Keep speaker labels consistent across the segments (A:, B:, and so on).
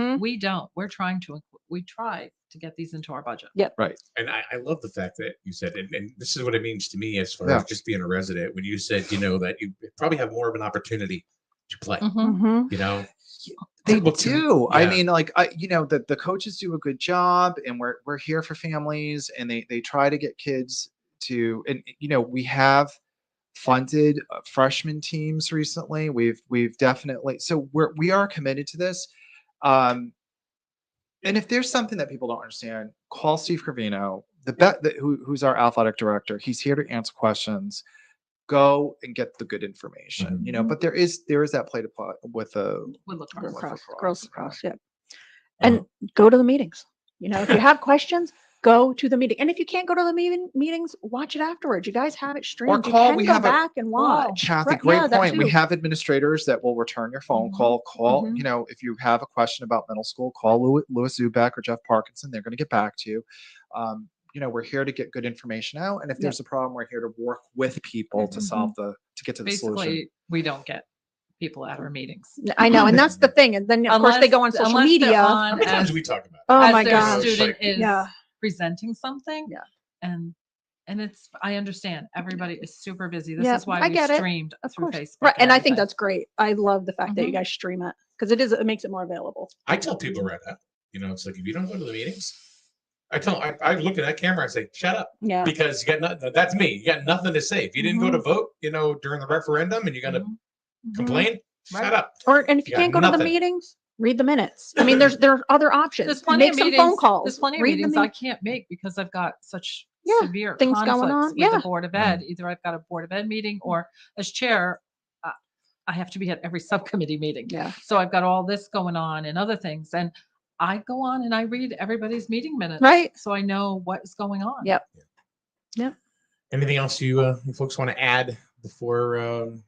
A: Mm-hmm.
B: And we don't, we're trying to, inc- we try to get these into our budget.
C: And I, I love the fact that you said, and, and this is what it means to me as far
D: Yeah.
C: as just being a resident, when you said, you know, that you probably have more of an opportunity to play,
B: Mhm.
A: Mm-hmm.
C: you know?
D: They
C: People can-
D: do. I
C: yeah.
D: mean, like I, you know, the, the coaches do a good job, and we're we're here for families, and they they try to get kids to, and you know, we have funded uh, freshman teams recently. We've we've definitely so we're we are committed to this. Um, and if there's something that people don't understand, call Steve Carvino, the bet that who, who's our athletic director. He's here to answer questions. Go and get the good information, you know.
A: Mhm.
D: But there is there is that play to play with a
B: We look
D: Girls
B: for it.
D: Lacrosse,
A: Across,
D: yeah.
A: girls across, yeah. And go to the meetings. You know, if you have questions, go to the meeting. And if you can't go to the meeting, meetings, watch it afterwards. You guys have it streamed. You
D: call.
A: can
D: We
A: go
D: have a-
A: back and watch.
D: Kathy,
A: Right,
D: great
A: yeah, that
D: point. We
A: too.
D: have administrators that will return your phone
B: Mhm,
D: call. Call,
B: mhm.
D: you know, if you have a question about middle school, call Louis, Louis Zubek or Jeff Parkinson. They're going to get back to you. Um, you know, we're here to get good information out, and if
A: Yeah.
D: there's a problem, we're here to work with people to
B: Mhm.
D: solve the to get to the solution.
B: Basically, we don't get people at our meetings.
A: N- I know, and that's the thing. And then of course they
B: Unless-
A: go on social
B: unless they're
A: media.
C: How
B: on
C: many times
B: as-
C: do we talk about
A: oh
B: as
A: my
B: their
A: gosh!
B: Student is
A: Yeah.
B: presenting something.
A: Yeah.
B: And, and it's, I understand, everybody is super busy.
A: Yeah,
B: This is why
A: I
B: we
A: get it.
B: streamed
A: Of
B: through
A: course.
B: Facebook.
A: Right, and I think
B: everything.
A: that's great. I love the fact that you
B: Mhm.
A: guys stream it because it is it makes it more available.
C: I tell people right now, you know, it's like if you don't go to the meetings, I tell I, I look at that camera, I say, shut up,
A: Yeah.
C: because you got nothing. That's me. You got nothing to say. If you didn't go to vote, you know, during the referendum, and you're gonna
B: Mhm.
A: Mhm.
C: complain,
B: Right.
C: shut up.
A: Or and if you
C: Yeah,
A: can't go to the
C: nothing.
A: meetings, read the minutes. I mean, there's there are other options.
B: Mm-hmm. There's plenty
A: make
B: of
A: some
B: meetings.
A: phone calls.
B: There's plenty of
A: read the
B: meetings I
A: meet-
B: can't make because I've got such
A: Yeah,
B: severe
A: things going
B: conflicts
A: on.
B: with
A: Yeah.
B: the board of ed. Either I've got a board of ed meeting, or as chair, uh, I have to be at every subcommittee meeting.
A: Yeah.
B: So I've got all this going on and other things, and I go on and I read everybody's meeting minutes,
A: Right.
B: so I know what is going on.
A: Yep.
C: Anything else you, uh, you folks want to add before? Um,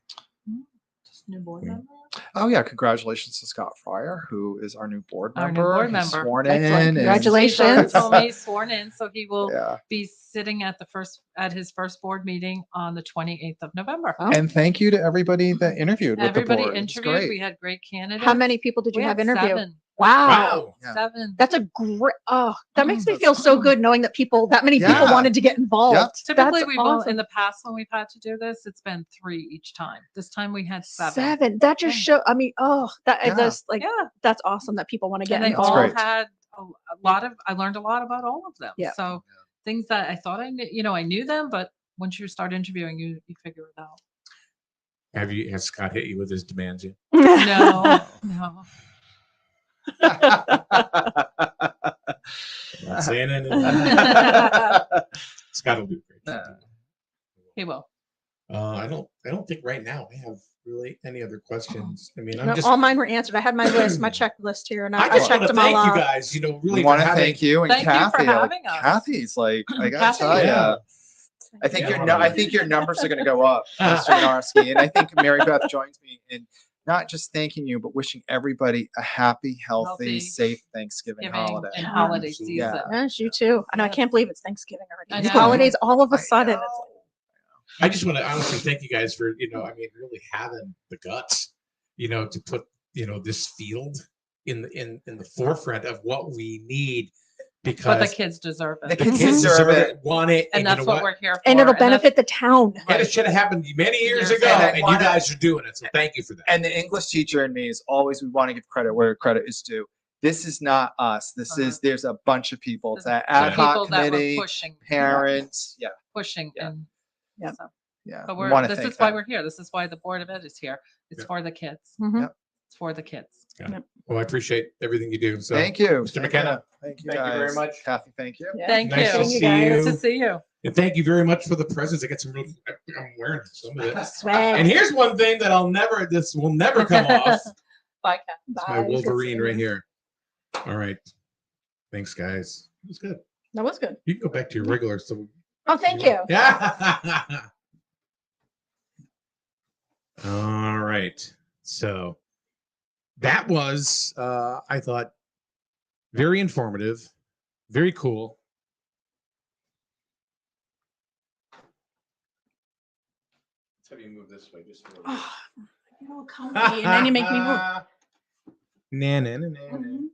B: Just new board
C: Yeah.
B: member.
D: Oh yeah, congratulations to Scott Fryer, who is our new board
B: Our new
D: member.
B: board
D: He's
B: member.
D: Sworn in.
A: Excellent.
D: and-
A: Congratulations.
B: He's already
A: Congratulations.
B: told me he's sworn in, so he will
D: Yeah,
B: be sitting at the first at his first board meeting on the 28th of November.
A: Oh.
D: and thank you to everybody that interviewed with
B: Everybody
D: the board. It's
B: interviewed.
D: great.
B: We had great candidates.
A: How many people did you
B: We
A: have
B: had
A: interview?
B: seven.
A: Wow.
C: wow.
D: Yeah.
B: Seven.
A: That's a great. Oh, that makes me
D: Mm,
A: feel so
B: mm.
A: good knowing that people that many people
D: Yeah.
A: wanted to get involved.
B: Typically,
A: That's
B: we've also, in the past when we've had to do this, it's been three each time. This time we had seven.
A: Seven. That just
B: Yeah.
A: show. I mean, oh, that
D: Yeah.
A: yeah. just like
B: Yeah,
A: that's awesome that people want to get
B: and they
D: That's
B: all
A: involved.
D: great.
B: had a, a lot of. I learned a lot about all of them.
A: Yeah.
B: So things that I thought I knew, you know, I knew them, but once you start interviewing, you you figure it out.
C: Have you has Scott hit you with his demands yet?
B: No, no.
C: I'm not saying anything. Scott will do great.
D: Yeah.
B: He will.
C: Uh, I don't. I don't think right now I have really any other questions. I mean, I'm
A: No,
C: just.
A: all mine were answered. I had my list, my checklist here, and I,
C: I
A: I
C: just want
A: checked
C: to
A: them all
C: thank you
A: off.
C: guys. You know, really
D: we want to
C: for having-
D: thank you and
B: Thank you for
D: Kathy. like,
B: having us.
D: Kathy's like, I gotta
B: Kathy,
D: tell
C: yeah.
D: you, I think
C: Yeah.
D: your nu- I think your numbers are gonna go up, Mr. Narski. And I think Mary Beth joins me in not just thanking you, but wishing everybody a happy, healthy,
B: Healthy
D: safe Thanksgiving
B: Giving
D: holiday.
B: and holiday
C: Absolutely.
B: season.
D: Yeah.
A: Yes, you too. I know. I can't believe it's Thanksgiving
B: I
A: already. These
B: know.
A: holidays all of a
D: I
A: sudden.
D: know.
A: It's
C: I just want to honestly thank you guys for you know I mean really having the guts you know to put you know this field in the in in the forefront of what we need
B: But the
C: because
B: kids deserve
D: The
B: it,
D: kids deserve
C: deserve
D: it.
C: it, want it,
B: and
C: you
B: that's
C: know
B: what we're here for.
A: and it'll
B: that's-
A: benefit the town.
C: And it should have happened many years
B: Years
C: ago,
B: ago.
C: and you
D: Wanna-
C: guys are doing it. So thank you for that.
D: And the English teacher in me is always we want to give credit where credit is due. This is not us. This
B: Uh-huh.
D: is there's a bunch of people. It's
B: There's
D: that ad
B: People
D: hoc
B: that were
D: committee,
B: pushing,
D: parents. Yeah,
B: pushing,
D: Yeah.
B: and
A: Yep.
B: so-
D: yeah.
B: But
D: we
B: we're,
D: wanna
B: this
D: thank
B: is why
D: them.
B: we're here. This is why the Board of Ed is here. It's
C: Yeah.
B: for the kids.
A: Mhm.
C: Mm-hmm.
D: Yep.
B: It's for the kids.
C: Well, I appreciate everything you do. So
D: Thank you,
C: Mr.
D: Thank
C: McKenna,
D: you. Thank you.
C: thank you very
D: guys.
C: much.
D: Kathy. Thank you.
A: Yeah.
B: Thank
C: Nice
B: you.
C: to
A: Thank you
C: see
B: Good
C: you.
B: to see you.
C: And thank you very much for the presents. I got some real. I'm wearing some of this.
A: Swag.
C: And here's one thing that I'll never. This will never come off.
B: Bye, Kat.
C: It's my
A: Bye. Good
C: Wolverine
A: seeing
C: right
A: Ah, you.
C: here. All right. Thanks, guys. It was good.
A: That was good.
C: You can go back to your regular. So
A: Oh, thank you.
C: Yeah. All right. So that was, uh, I thought, very informative, very cool. Let's have you move this way just a little
A: Oh, you all come to me and then you make me move.
C: Na, na, na, na, na.
A: Mhm.